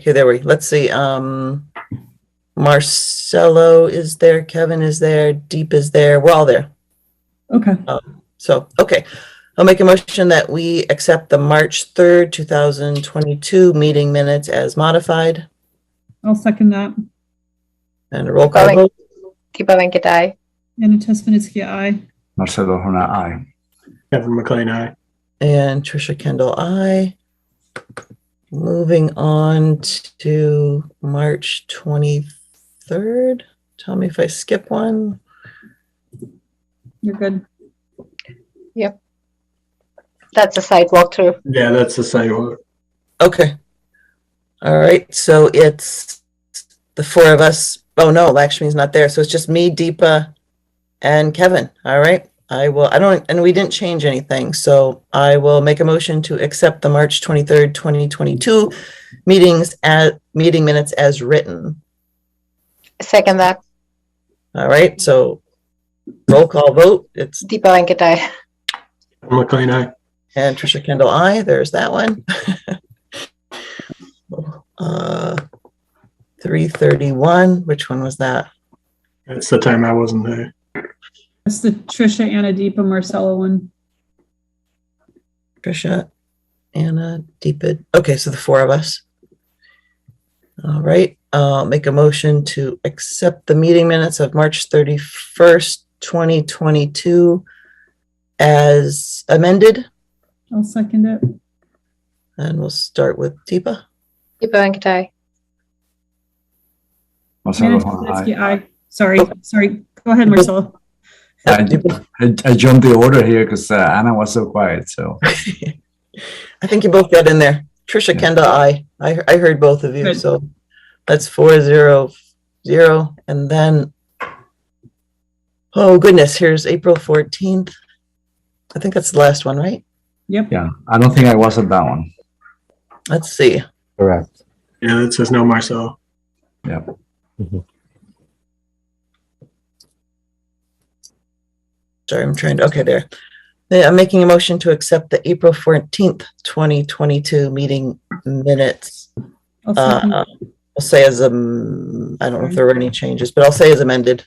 Here, there we, let's see, um, Marcelo is there, Kevin is there, Deep is there, we're all there. Okay, So, okay, I'll make a motion that we accept the March 3rd, 2022 meeting minutes as modified I'll second that. and a roll call Going. vote. Deepa Venkatai. Anna Tesmanitsky, aye. Marcelo Hona, aye. Kevin McLean, eh? aye. And Trisha Kendall, I. Moving on to March 23rd. Tell me if I skip one. You're good. That's a site walkthrough. Yeah, that's the same. Okay. All right, so it's the four of us. Oh no, Lakshmi's not there, so it's just me, Deepa, and Kevin. All right, I will, I don't, and we didn't change anything, so I will make a motion to accept the March twenty-third, twenty twenty-two meetings at, meeting minutes as written. Second that, All right, so roll call vote, it's, Deepa Venkatai. Kevin McLean, eh? aye. and Trisha Kendall, I. there's that one. Uh, three thirty-one, which one was that? That's the time I wasn't there. That's the Trisha, Anna, Deepa, Marcella one. Trisha, Anna, Deepid. Okay, so the four of us. All right, uh, make a motion to accept the meeting minutes of March thirty-first, twenty twenty-two as amended, I'll second it. and we'll start with Deepa. Deepa Venkatai. Anna Marcelo Hona, aye. Tesmanitsky, aye. Sorry, sorry. Go ahead, Marcella. I, Deepa, I, I jumped the order here because uh, Anna was so quiet. So I think you both got in there. Trisha Yeah. Kendall, I, I, I heard both of you, Good. so that's four zero zero, and then oh goodness, here's April fourteenth. I think that's the last one, right? Yep, yeah, I don't think I was at that one. Let's see. Correct. Yeah, that says no Marcel. Sorry, I'm trying to, okay, there. Yeah, I'm making a motion to accept the April fourteenth, twenty twenty-two meeting minutes. I'll second. Uh, it. I'll say as, um, I don't know if there were any changes, but I'll say as amended.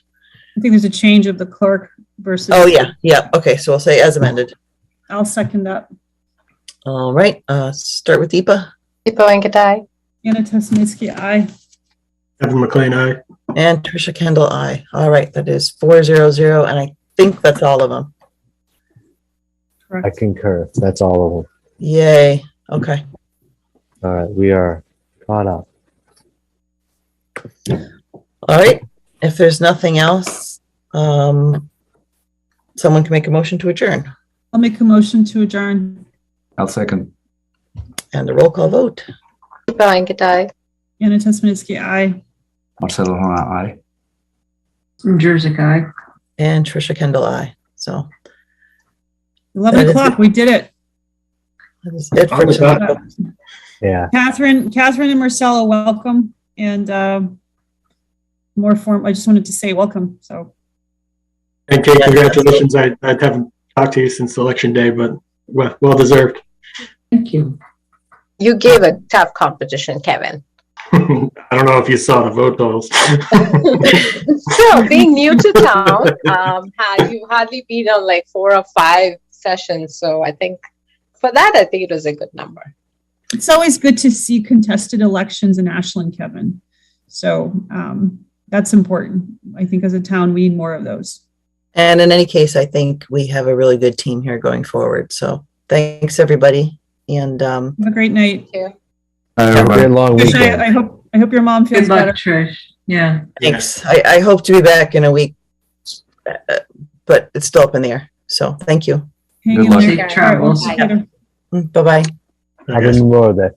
I think there's a change of the clerk versus. Oh, yeah, yeah, okay, so I'll say as amended. I'll second that. All right, uh, start with Deepa Deepa Venkatai. Anna Tesmanitsky, aye. Kevin McLean, eh? aye. and Trisha Kendall, I. All right, that is four zero zero, and I think that's all of them. I Correct. concur. That's all of Yay, okay. them. All right, we are caught up. All right, if there's nothing else, um, someone can make a motion to adjourn I'll make a motion to adjourn. I'll second. and the roll call vote. Deepa Venkatai. Anna Tesmanitsky, aye. Marcelo Hona, aye. Jersey guy. And Trisha Kendall, I. So 11 That is o'clock, we did it. that is it for Alright, tonight. Yeah. Catherine, Catherine and Marcella, welcome. And um, more form, I just wanted to say welcome, so. And Kate, Yeah, congratulations. I, I haven't talked to you since election day, but well, well deserved. Thank you. You gave a tough competition, Kevin. I don't know if you saw the vote totals. so being new to town, um, had you hardly been on like four or five sessions. So I think for that, I think it was a good number. It's always good to see contested elections in Ashland, Kevin. So um, that's important. I think as a town, we need more of those. And in any case, I think we have a really good team here going forward. So thanks, everybody. And um, Have a great night. Bye, Have a everybody. great long Trish, weekend. I, I hope I hope your mom feels Good luck, better. Trish. Yeah. thanks. I, I hope to be back in a week, uh, uh, but it's still up in the air. So thank you. Mm, Hang Good in luck. there. Safe travels. All right, we'll see you later. Bye bye. Happy Memorial Day.